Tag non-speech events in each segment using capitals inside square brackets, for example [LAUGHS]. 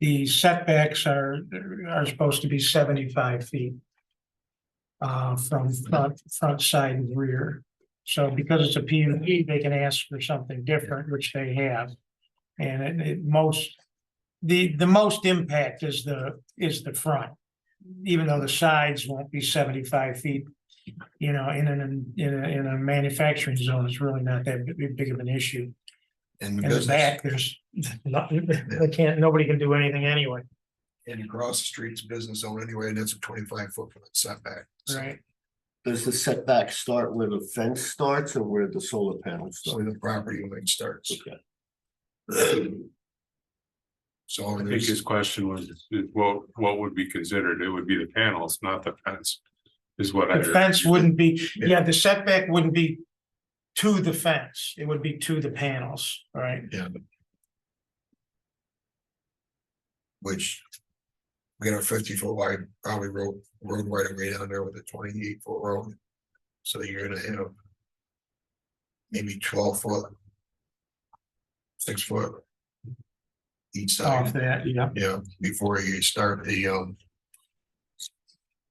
the setbacks are, are supposed to be seventy-five feet. Uh, from front, front side and rear. So because it's a P and E, they can ask for something different, which they have. And it, it most, the, the most impact is the, is the front. Even though the sides won't be seventy-five feet, you know, in an, in a, in a manufacturing zone, it's really not that big, big of an issue. And In the business, back, there's, [LAUGHS] not- they can't, nobody can do anything anyway, and across the street's business zone anyway, and that's a twenty-five foot from the setback. So- right? Does the setback start where the fence starts or where the solar panels So start? the property line starts, Okay. [CLEARS THROAT] so I think there's, his question was, is what, what would be considered? It would be the panels, not the fence. Is what I. The heard. fence wouldn't be, Yeah. yeah, the setback wouldn't be to the fence, it would be to the panels, right? yeah. but- Which. We got a fifty foot wide, probably road, road right away down there with a twenty-eight foot road. So you're gonna have. Maybe twelve foot. Six foot. Each Off side, that, yeah. yeah, before you start the um.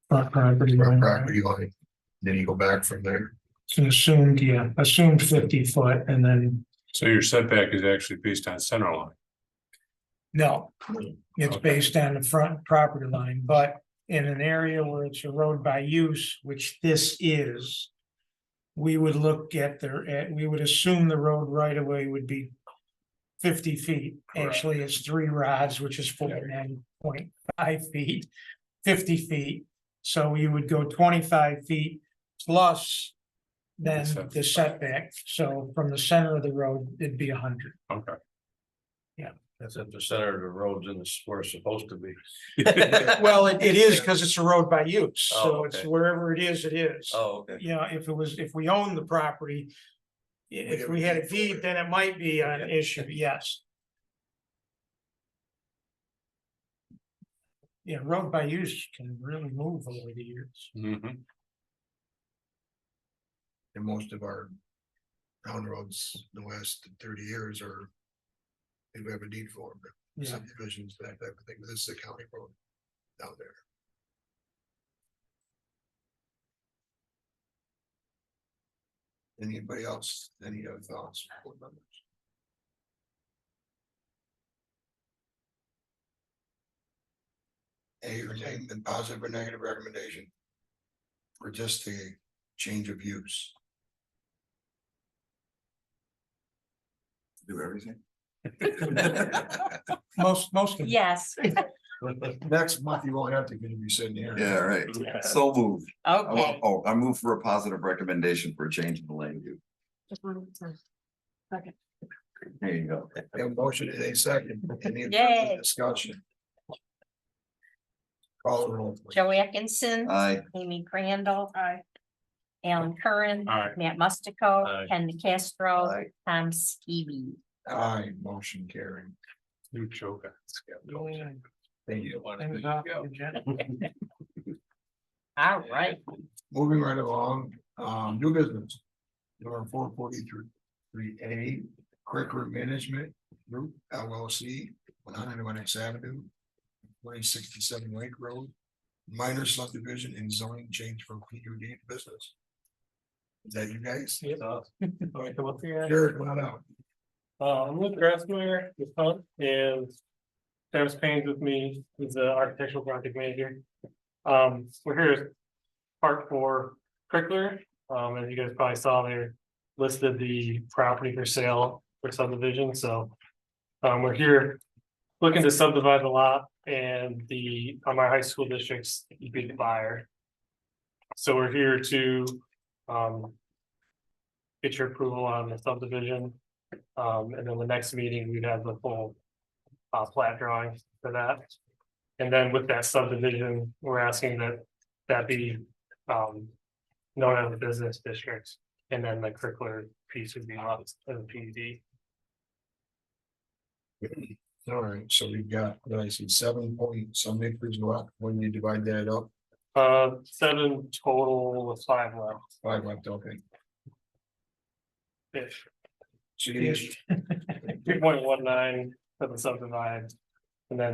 front property Front line, right? property line. Then you go back from there. It's an assumed, yeah, assumed fifty foot and then, So your setback is actually based on center line. no, it's Okay. based on the front property line, but in an area where it's a road by use, which this is, we would look at the, at, we would assume the road right away would be fifty feet. Correct. Actually, it's three rods, which is forty-nine point five feet, fifty feet. So you would go twenty-five feet plus then the setback. So from the center of the road, it'd be hundred. Okay. That's at the center of the roads and it's where it's supposed to be. [LAUGHS] Well, it, it is because it's a road by use, Oh, so it's okay. wherever it is, it is. Oh, okay. You know, if it was, if we owned the property. i- If we had a deed, then it might be an issue, yes. Yeah, road by use can really move over the years. Mhm. And most of our. Town roads in the last thirty years are. They have a deed for them, Yeah, subdivisions, that type of thing, but this is a county road. Down there. Anybody else, any other thoughts? board members? A or name, and positive or negative recommendation? Or just the change of use? Do everything? most, most of, Yes, Next month, you won't have to, because you're sitting here. Yeah, right. So moved. I wa- okay. Oh, I move for a positive recommendation for a change in the land use. There you go. We have a motion in a second. Any further Yay. Discussion. Call the roll. please. Joey Atkinson, I, Amy Crandall. Alan Curran. Aye. Matt Mustico. Aye. Ken Castro. Aye. Tom Skibby. Aye, motion carried. You joke. Thank you. All right, Moving right along, um, new business. Number four forty-three, three A, Quick Route Management Group LLC, one hundred and one X Avenue. One sixty-seven Lake Road, minor subdivision and zoning change from PUD to business. Is that you guys? Yep. All right, come up here. Jared, come on out. Uh, I'm Luke Grassmeyer, with Hunt, and Travis Payne's with me, who's the architectural project manager. Um, we're here as part for Crickler, um, as you guys probably saw there, listed the property for sale for subdivision, so. Um, we're here looking to subdivide the lot and the, on my high school districts, be the buyer. So we're here to, um. Get your approval on the subdivision. Um, and then the next meeting, we'd have the full uh, plat drawing for that. And then with that subdivision, we're asking that that be um known as a business district, and then the curricular piece would be on as a PUD. All right, so we've got, what did I see, seven point some acres left, when you divide that up, Uh, seven total with five left. five left, okay. ish. So you- Three point one nine for the subdivided, and then